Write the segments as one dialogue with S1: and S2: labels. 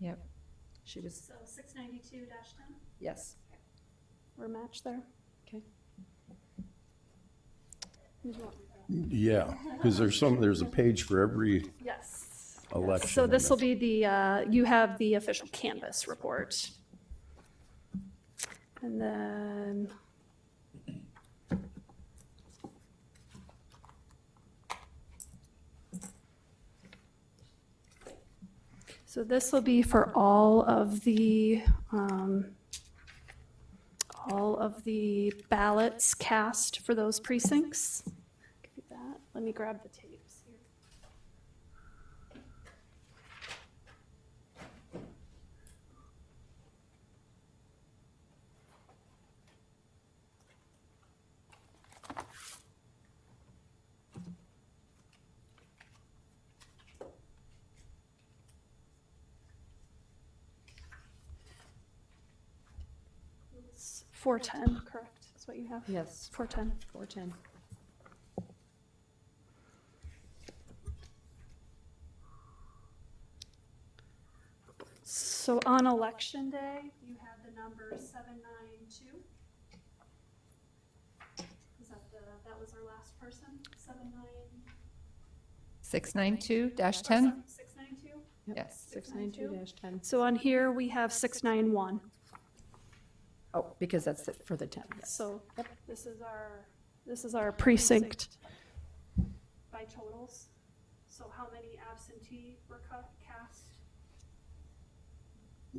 S1: Yep. She was,
S2: So six ninety-two ten?
S1: yes.
S3: We're matched there.
S1: Okay.
S4: Yeah, because there's some, there's a page for every
S3: Yes.
S4: election.
S3: So this will be the, uh, you have the official canvas report. And then. So this will be for all of the, um, all of the ballots cast for those precincts. Give you that. Let me grab the tapes here. It's 410, correct, is what you have?
S1: Yes.
S3: 410.
S1: 410.
S3: So on election day, you have the number 792. Is that the, that was our last person, 792?
S5: 692-10?
S3: 692?
S5: Yes.
S1: 692-10.
S3: So on here, we have 691.
S1: Oh, because that's it for the 10.
S3: So this is our, this is our precinct. By totals, so how many absentee were cu- cast?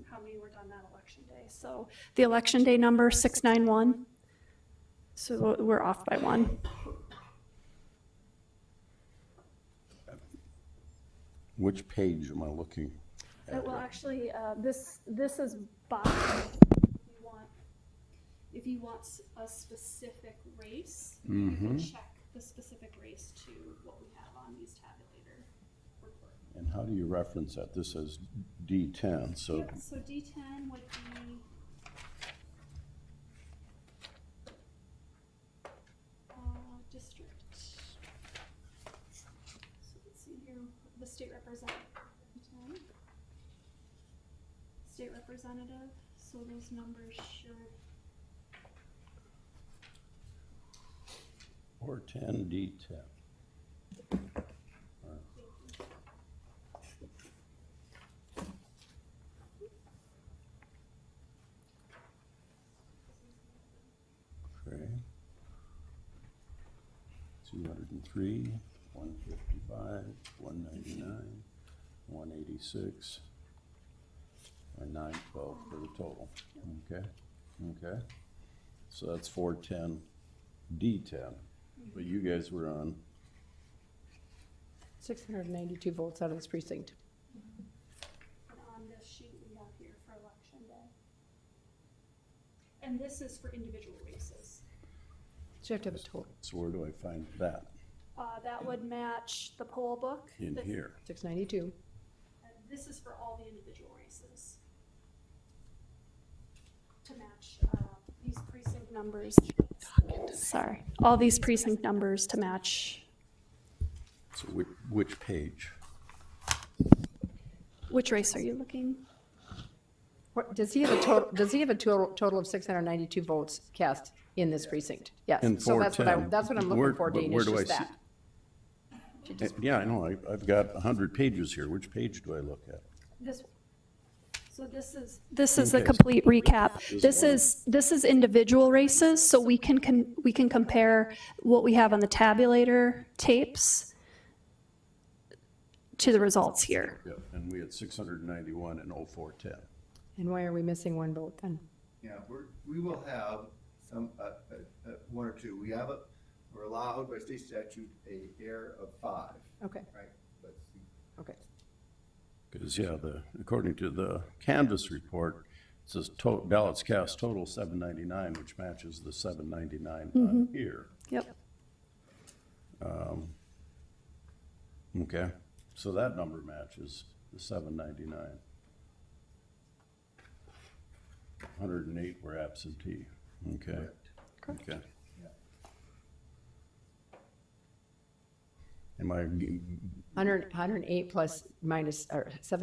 S3: How many were done that election day? So the election day number, 691. So we're off by one.
S4: Which page am I looking?
S3: Uh, Well, actually, uh, this, this is by, you want, if you want s- a specific race, you
S4: Hmm? Mm-hmm.
S3: can check the specific race to what we have on these tabulator report.
S4: And how do you reference that? This is D10, so
S3: Yep, so D ten would be. Uh, district. So let's see here, the state representative. D10. State representative, so those numbers should,
S4: or 10, D10. Okay. 203, 155, 199, 186, and 912 for the total. Okay, okay. So that's 410, D10. But you guys were on,
S1: 692 votes out of this precinct.
S3: and on this sheet we have here for election day. And this is for individual races.
S1: So you have to have a total,
S4: so where do I find that?
S3: Uh, that would match the poll book.
S4: In
S3: the-
S4: here.
S1: 692.
S3: And this is for all the individual races. To match uh, these precinct numbers. Sorry, all these precinct numbers to match.
S4: So which, which page?
S3: Which race are you looking?
S1: What- Does he have a total, does he have a total, total of 692 votes cast in this precinct? Yes.
S4: In
S1: So that's what I,
S4: 410.
S1: that's what I'm
S4: Where-
S1: looking for,
S4: but
S1: Dean,
S4: where
S1: is
S4: do I
S1: just
S4: see-
S1: that.
S4: Eh, Yeah, I know, I- I've got 100 pages here. Which page do I look at?
S3: This, so this is. This is the
S4: Okay.
S3: complete recap. This is, this is individual races, so we can, con- we can compare what we have on the tabulator tapes to the results here.
S4: Yeah, and oh we had 691 and 0410.
S1: And why are we missing one vote then?
S6: Yeah, we're, we will have some, uh, uh, uh, one or two. We have a, we're allowed by state statute a air of five,
S1: Okay,
S6: right? But
S1: okay.
S4: Because, yeah, the, according to the Canvas report, it says to- ballots cast total 799, which matches the 799 on here.
S3: Yep.
S4: Okay, so that number matches the 799. 108 were absentee, okay? Okay. Am I g-
S1: 100 108 plus minus, or 7